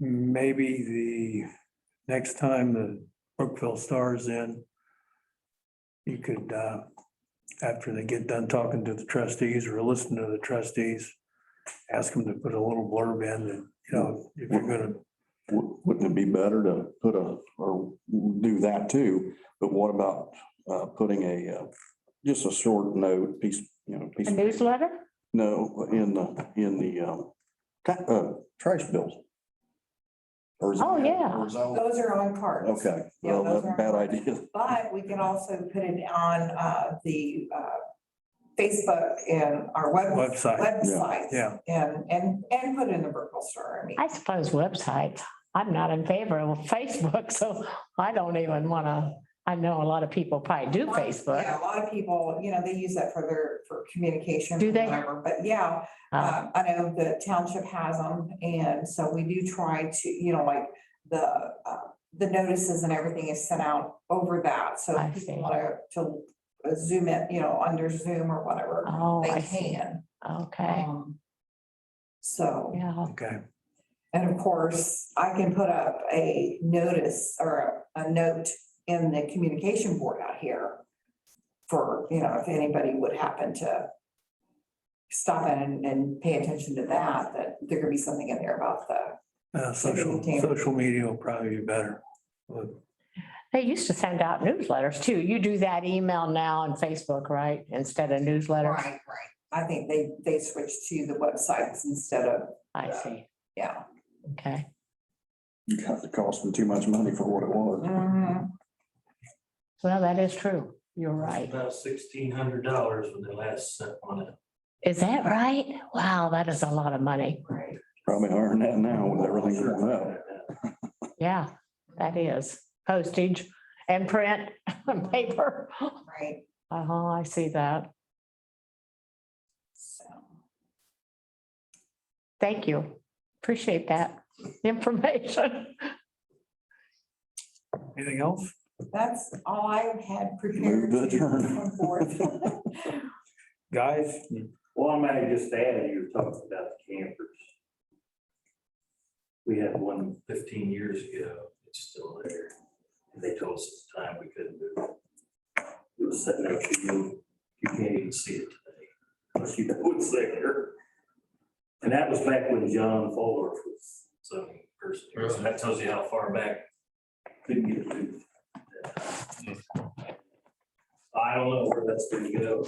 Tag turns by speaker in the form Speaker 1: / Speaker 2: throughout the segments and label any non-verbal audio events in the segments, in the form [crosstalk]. Speaker 1: maybe the next time the Brookville Stars in, you could, uh, after they get done talking to the trustees or listening to the trustees, ask them to put a little blurb in that, you know, if you're gonna,
Speaker 2: Wou- Wouldn't it be better to put a, or do that too? But what about uh, putting a, uh, just a short note, piece, you know, piece,
Speaker 3: A newsletter?
Speaker 2: no, in the, in the um, ca- uh, trash bills? Or is it-
Speaker 3: Oh, yeah.
Speaker 2: or is that-
Speaker 4: Those are on cards.
Speaker 2: Okay,
Speaker 4: Yeah,
Speaker 2: well, that's
Speaker 4: those are
Speaker 2: a
Speaker 4: on
Speaker 2: bad
Speaker 4: cards.
Speaker 2: idea.
Speaker 4: But we can also put it on uh, the uh, Facebook and our web
Speaker 1: website,
Speaker 4: websites.
Speaker 1: yeah.
Speaker 4: And, and, and put in the Burkeville Star. I mean,
Speaker 3: I suppose websites. I'm not in favor of [laughs] Facebook, so I don't even want to, I know a lot of people probably do
Speaker 4: Yeah,
Speaker 3: Facebook.
Speaker 4: a lot of people, you know, they use that for their, for communication.
Speaker 3: Do they?
Speaker 4: whatever. But yeah,
Speaker 3: Uh,
Speaker 4: uh, I know the township has them, and so we do try to, you know, like the, uh, the notices and everything is sent out over that, so
Speaker 3: I
Speaker 4: if people
Speaker 3: see.
Speaker 4: want to, to zoom in, you know, under Zoom or whatever,
Speaker 3: Oh, I
Speaker 4: they
Speaker 3: see.
Speaker 4: can.
Speaker 3: Okay,
Speaker 4: Um, So.
Speaker 3: yeah.
Speaker 1: Okay,
Speaker 4: And of course, I can put up a notice or a a note in the communication board out here for, you know, if anybody would happen to stop in and, and pay attention to that, that there could be something in there about the,
Speaker 1: uh, social, social media will probably be better. But
Speaker 3: They used to send out newsletters too. You do that email now and Facebook, right? Instead of newsletters?
Speaker 4: right, right. I think they, they switched to the websites instead of,
Speaker 3: I see.
Speaker 4: yeah.
Speaker 3: Okay.
Speaker 2: You got to cost them too much money for what it was.
Speaker 4: Mhm.
Speaker 3: Well, that is true. You're right.
Speaker 5: About sixteen hundred dollars when they last sent one out.
Speaker 3: Is that right? Wow, that is a lot of money.
Speaker 4: Right.
Speaker 2: Probably earn that now with everything going up.
Speaker 3: Yeah, that is. Postage and print [laughs] and paper.
Speaker 4: Right,
Speaker 3: Uh-huh, I see that.
Speaker 4: so.
Speaker 3: Thank you. Appreciate that [laughs] information.
Speaker 1: Anything else?
Speaker 4: That's all I had prepared.
Speaker 2: Move to adjourn.
Speaker 4: come forth. [laughs]
Speaker 1: Guys,
Speaker 5: Well, I might just add, you were talking about the campers. We had one 15 years ago, it's still there, and they told us at the time we couldn't move it. It was sitting there, you, you can't even see it today, unless you know it's there. And that was back when John Fuller was zoning person, here, so that tells you how far back couldn't get it moved. I don't know where that's gonna go.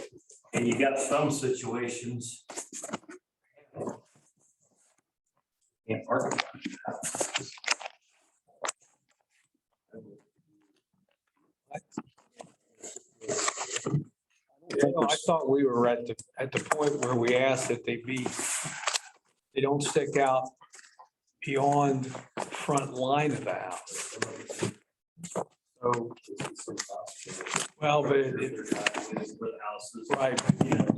Speaker 5: And you got some situations. Can't park.
Speaker 6: Yeah, no, I thought we were at the, at the point where we asked that they be, they don't stick out beyond the front line of the house. So, well, but it- it-
Speaker 5: Houses.
Speaker 6: right,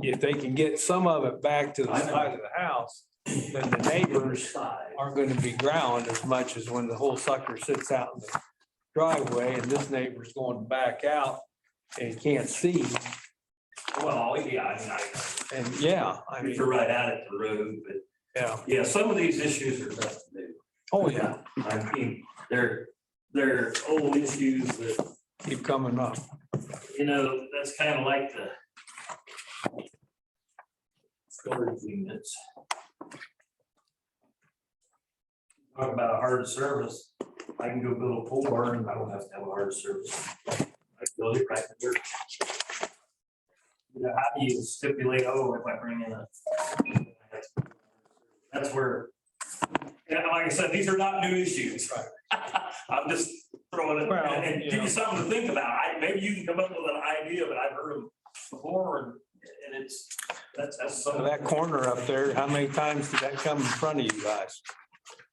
Speaker 6: if they can get some of it back to the side of the house, then the neighbors
Speaker 5: Side.
Speaker 6: aren't going to be ground as much as when the whole sucker sits out in the driveway and this neighbor's going back out and can't see.
Speaker 5: Well, yeah, I
Speaker 6: And yeah, I
Speaker 5: mean, I,
Speaker 6: mean,
Speaker 5: you're right out at the road, but
Speaker 6: yeah.
Speaker 5: yeah, some of these issues are tough to do.
Speaker 6: Oh, yeah.
Speaker 5: I mean, they're, they're old issues that
Speaker 6: keep coming up.
Speaker 5: you know, that's kind of like the storage units. Talk about a hard service, I can go build a pool barn, and I don't have to have a hard service. I can build it right there. You know, how do you stipulate, oh, if I bring in a. That's where, and like I said, these are not new issues. [laughs] I'm just throwing it,
Speaker 6: Well,
Speaker 5: and give
Speaker 6: yeah.
Speaker 5: you something to think about. I, maybe you can come up with an idea, but I've heard them before and, and it's, that's, that's some.
Speaker 6: That corner up there, how many times did that come in front of you guys?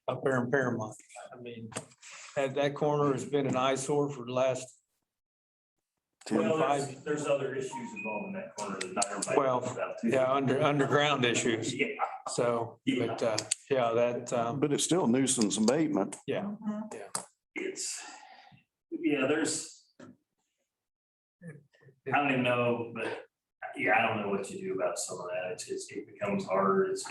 Speaker 6: Up there in Paramount. I mean, that, that corner has been an eyesore for the last
Speaker 5: Well, there's,
Speaker 6: 25,
Speaker 5: there's other issues involved in that corner that not everybody.
Speaker 6: Well,
Speaker 5: knows about too.
Speaker 6: yeah, under, underground issues.
Speaker 5: Yeah,
Speaker 6: So, but, uh, yeah, that, um,
Speaker 2: But it's still nuisance abatement.
Speaker 6: yeah.
Speaker 4: Mhm.
Speaker 5: it's, yeah, there's. I don't even know, but yeah, I don't know what you do about some of that. It's, it's- it becomes harder. It's,